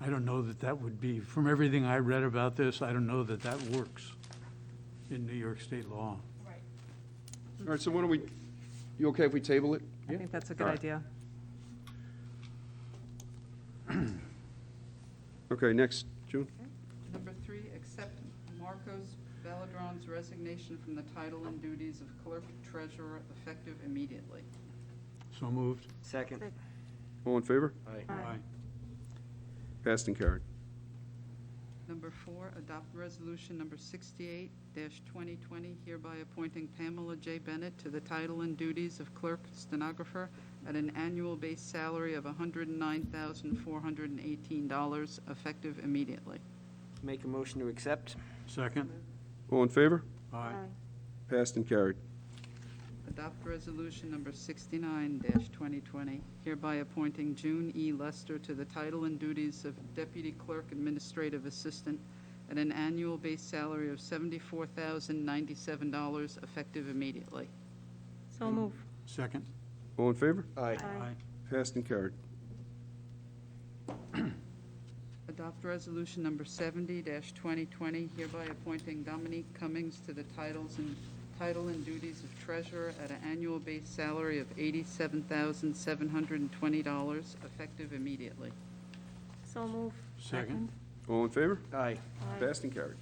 I don't know that that would be, from everything I read about this, I don't know that that works in New York state law. Right. All right, so why don't we, you okay if we table it? I think that's a good All right. idea. Okay, next, June? Number three, accept Marcos Belladron's resignation from the title and duties of clerk treasurer effective immediately. So moved. Second. All in favor? Aye. Aye. Passed and carried. Number four, adopt resolution number sixty-eight twenty twenty, hereby appointing Pamela J. Bennett to the title and duties of clerk stenographer at an annual base salary of hundred and nine thousand, four hundred and eighteen dollars, effective immediately. Make a motion to accept. Second? All in favor? Aye. Passed and carried. Adopt resolution number sixty-nine twenty twenty, hereby appointing June E. Lester to the title and duties of deputy clerk administrative assistant at an annual base salary of seventy-four thousand ninety-seven dollars effective immediately. So move. Second? All in favor? Aye. Passed and carried. Adopt resolution number seventy twenty twenty, hereby appointing Dominique Cummings to the titles and, title and duties of treasurer at an annual base salary of eighty-seven thousand seven hundred and twenty dollars effective immediately. So move. Second? All in favor? Aye. Passed and carried.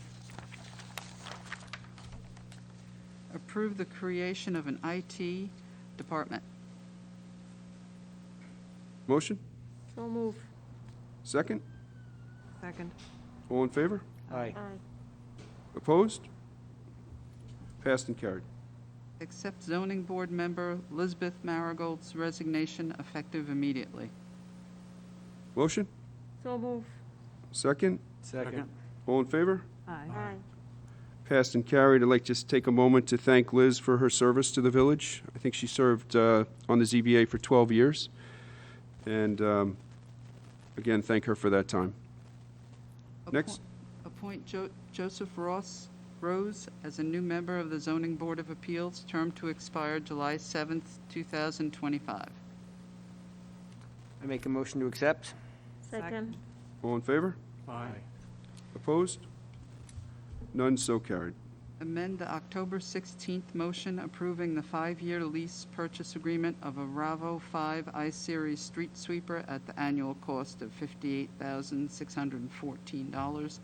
Approve the creation of an IT department. Motion? So move. Second? Second. All in favor? Aye. Opposed? Passed and carried. Accept zoning board member Lisbeth Marigold's resignation effective immediately. Motion? So move. Second? Second. All in favor? Aye. Passed and carried. I'd like to just take a moment to thank Liz for her service to the village. I think she served uh, on the ZBA for 12 years. And um, again, thank her for that time. Next. Appoint- Appoint Jo- Joseph Ross Rose as a new member of the zoning board of appeals, term to expire July 7th, 2025. I make a motion to accept. Second. All in favor? Aye. Opposed? None so carried. Amend the October 16th motion approving the five-year lease purchase agreement of a Ravo 5 I-Series street sweeper at the annual cost of $58,614.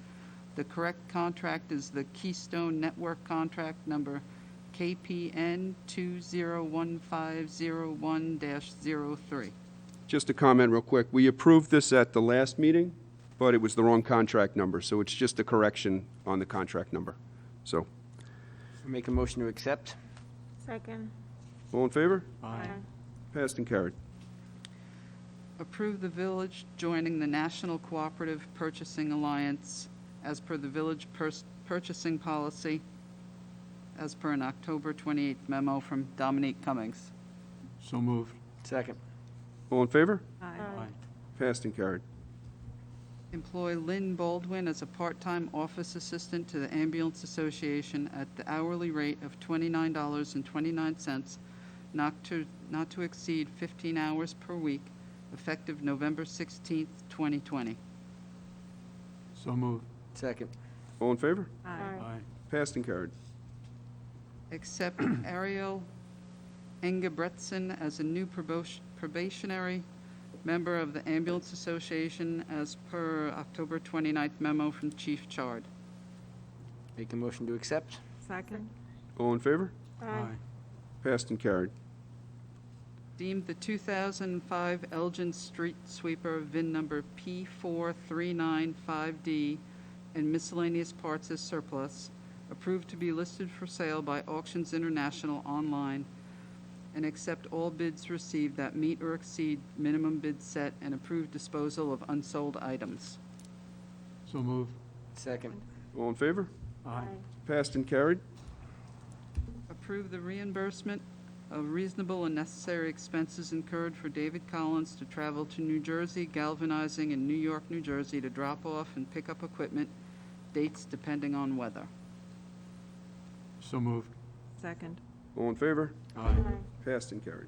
The correct contract is the Keystone Network Contract Number KPN 201501-03. Just a comment real quick. We approved this at the last meeting, but it was the wrong contract number, so it's just a correction on the contract number. So, I make a motion to accept. Second. all in favor? Aye. Passed and carried. Approve the village joining the National Cooperative Purchasing Alliance as per the village pers- purchasing policy, as per an October 28th memo from Dominique Cummings. So moved. Second. All in favor? Aye. Passed and carried. Employ Lynn Baldwin as a part-time office assistant to the Ambulance Association at the hourly rate of $29.29, not to, not to exceed 15 hours per week, effective November 16th, 2020. So moved. Second. All in favor? Aye. Aye. Passed and carried. accept Ariel Engebretson as a new probos- probationary member of the Ambulance Association as per October 29th memo from Chief Chard. Make a motion to accept. Second. All in favor? Aye. Passed and carried. Deemed the 2005 Elgin Street Sweeper VIN number P4395D and miscellaneous parts as surplus, approved to be listed for sale by Auctions International online, and accept all bids received that meet or exceed minimum bid set and approve disposal of unsold items. So moved. Second. All in favor? Aye. Passed and carried. Approve the reimbursement of reasonable and necessary expenses incurred for David Collins to travel to New Jersey, galvanizing in New York, New Jersey to drop off and pick up equipment, dates depending on weather. So moved. Second. All in favor? Aye. Passed and carried.